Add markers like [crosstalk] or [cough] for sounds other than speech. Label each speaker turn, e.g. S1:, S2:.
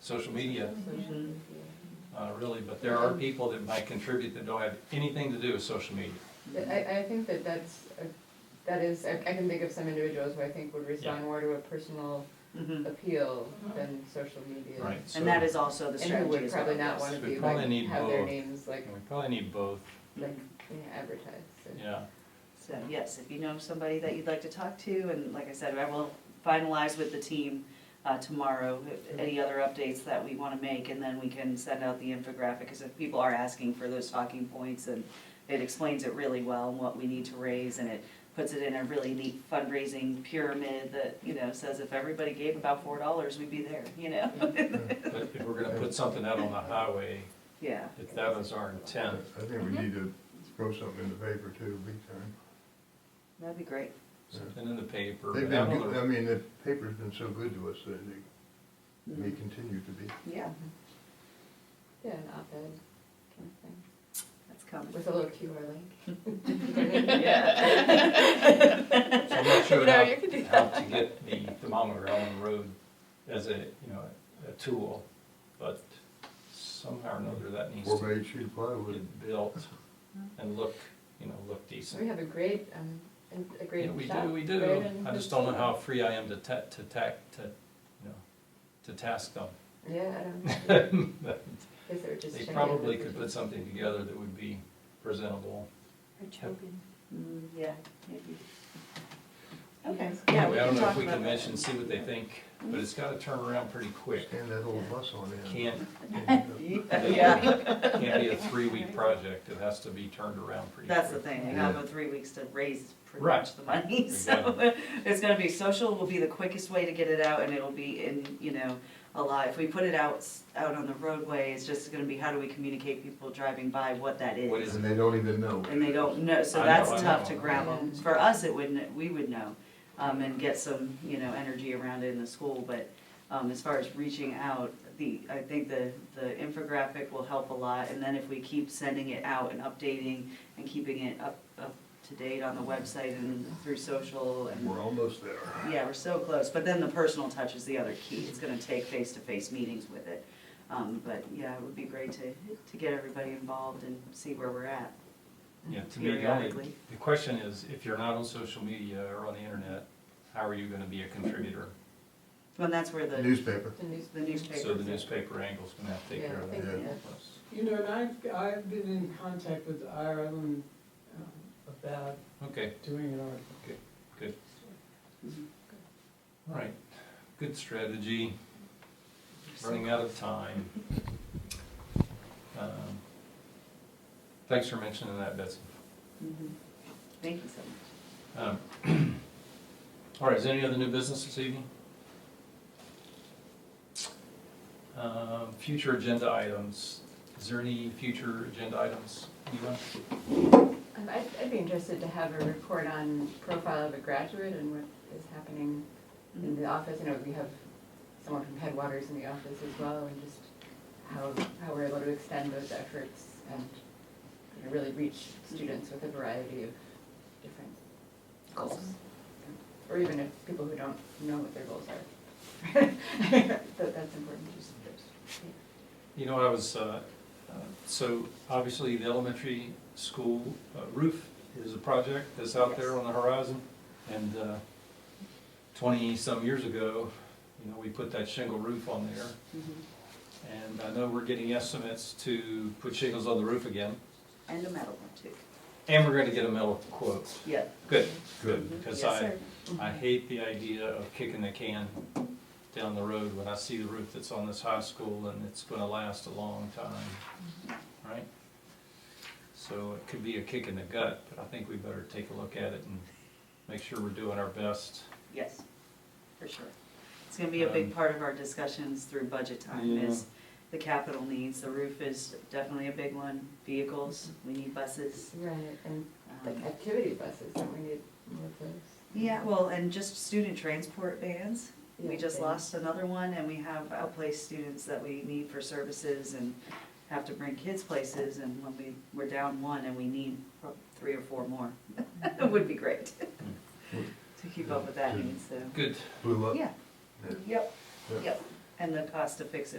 S1: social media,
S2: Mm-hmm.
S1: uh, really, but there are people that might contribute that don't have anything to do with social media.
S3: But I, I think that that's, a- that is, I I can think of some individuals who I think would respond more to a personal
S2: Mhm.
S3: appeal than social media.
S1: Right. so
S2: And that is also
S3: And
S2: the
S3: who
S2: strategy
S3: would
S2: as well.
S3: probably not
S2: yes.
S3: wanna
S1: We
S3: be
S1: probably
S3: like,
S1: need
S3: have their
S1: both.
S3: names like,
S1: We probably need both,
S3: like, you know, advertised. and-
S1: yeah.
S2: So, yes, if you know somebody that you'd like to talk to, and like I said, I will finalize with the team uh, tomorrow, if- any other updates that we want to make, and then we can send out the infographic, because if people are asking for those talking points, and it explains it really well, and what we need to raise, and it puts it in a really neat fundraising pyramid that, you know, says if everybody gave about four dollars, we'd be there, you know?
S1: But if we're gonna put something out on the highway,
S2: [laughs] Yeah,
S1: if that was our intent,
S4: I think we need to throw something in the paper too, big time.
S2: that'd be great.
S1: something in the paper.
S4: They've
S1: I
S4: been,
S1: don't
S4: good-
S1: know,
S4: I mean, the paper's been so good to us that it may continue to be.
S2: Mm-hmm. Yeah,
S3: Yeah, an op-ed kind of thing,
S2: that's coming.
S3: with a little QR
S1: [laughs]
S3: link.
S2: Yeah.
S1: So I'm not
S3: You
S2: [laughs]
S1: sure
S3: know, you could do
S1: how, how to get the thermometer on the road as a, you know, a tool, but somehow or another that needs
S4: Four
S1: to
S4: by eight sheet of plywood.
S1: get built and look, you know, look decent.
S3: We have a great, um, and a great
S1: Yeah, we
S3: shop,
S1: do, we
S3: right,
S1: do.
S3: and
S1: I just
S3: it's-
S1: don't know how free I am to ta, to tack, to, you know, to task
S2: [laughs]
S1: them.
S3: Yeah, I
S1: [laughs]
S3: don't know. Guess they were just
S1: They
S3: checking
S1: probably
S3: if
S1: could
S3: we
S1: put something together that would be presentable.
S5: Or choking.
S2: Mm, Yeah, maybe.
S3: Okay.
S2: Okay,
S1: I
S2: yeah, we
S1: don't
S2: can
S1: know if
S2: talk
S1: we
S2: about
S1: can
S2: that.
S1: mention, see what they think, but it's gotta turn around pretty quick.
S4: Stand that little bus on end.
S1: Can't,
S2: [laughs] Yeah,
S1: can't be a three-week project. It has to be turned around pretty quick.
S2: that's the thing, you have about three weeks to raise pretty
S1: Right.
S2: much the money, [laughs] so it's gonna be, social will be the quickest way to get it out, and it'll be in, you know, a lot, if we put it out, s- out on the roadway, it's just gonna be how do we communicate people driving by what that
S1: What
S2: is?
S1: is-
S4: And they don't even know.
S2: And they don't know, so
S1: I know,
S2: that's
S1: I
S2: tough to
S1: know.
S2: grab them,
S3: Yeah.
S2: for us, it wouldn't, we would know, um, and get some, you know, energy around it in the school, but, um, as far as reaching out, the, I think the, the infographic will help a lot, and then if we keep sending it out and updating and keeping it up, up to date on the website and through social and,
S4: We're almost there.
S2: yeah, we're so close, but then the personal touch is the other key, it's gonna take face-to-face meetings with it. Um, but, yeah, it would be great to, to get everybody involved and see where we're at.
S1: Yeah, to me, the only,
S2: Periodically.
S1: the question is, if you're not on social media or on the internet, how are you gonna be a contributor?
S2: Well, that's where the.
S4: Newspaper.
S3: The news.
S2: The newspaper.
S1: So the newspaper angle's gonna have to take care
S3: Yeah, I
S1: of
S3: think,
S4: Yeah.
S3: yeah.
S1: that.
S6: You know, and I've, I've been in contact with Ireland um, about
S1: Okay,
S6: doing an article.
S1: all right, good strategy, running out of time. Um, Thanks for mentioning that, Betsy.
S2: Mhm. Thank you so much.
S1: Um, [clears throat] All right, is there any other new business this evening? Um, Future agenda items, is there any future agenda items, anyone?
S3: Um, I'd, I'd be interested to have a report on profile of a graduate and what is happening in the office. You know, we have someone from Headwaters in the office as well, and just how, how we're able to extend those efforts and you know, really reach students with a variety of different goals. Or even if people who don't know what their goals are. [laughs] That, that's important, just,
S1: You know, I was, uh, uh, so obviously the elementary school uh, roof is a project that's out there
S2: Yes.
S1: on the horizon. And uh, twenty-some years ago, you know, we put that shingle roof on there.
S2: Mhm.
S1: And I know we're getting estimates to put shingles on the roof again.
S2: And a medal one too.
S1: And we're gonna get a metal quote.
S2: Yeah.
S1: Good,
S4: Good.
S1: because
S2: Yes,
S1: I,
S2: sir.
S1: I hate the idea of kicking the can down the road when I see the roof that's on this high school and it's gonna last a long time, right? So it could be a kick in the gut, but I think we better take a look at it and make sure we're doing our best.
S2: Yes, for sure. It's gonna be a big
S1: Um,
S2: part of our discussions through budget time is the capital needs. The roof is definitely a big one. Vehicles, we need buses.
S3: right, and like
S2: um,
S3: activity buses, don't we need more of those?
S2: Yeah, well, and just student transport vans. We
S3: Yeah,
S2: just
S3: vans.
S2: lost another one and we have outplaced students that we need for services and have to bring kids places and when we, we're down one and we need pro- three or four more. [laughs] It would be great [laughs] to keep up with that need, so,
S1: Good,
S4: Blew up.
S2: yeah,
S4: Yeah.
S2: yep, yep. And the cost to fix it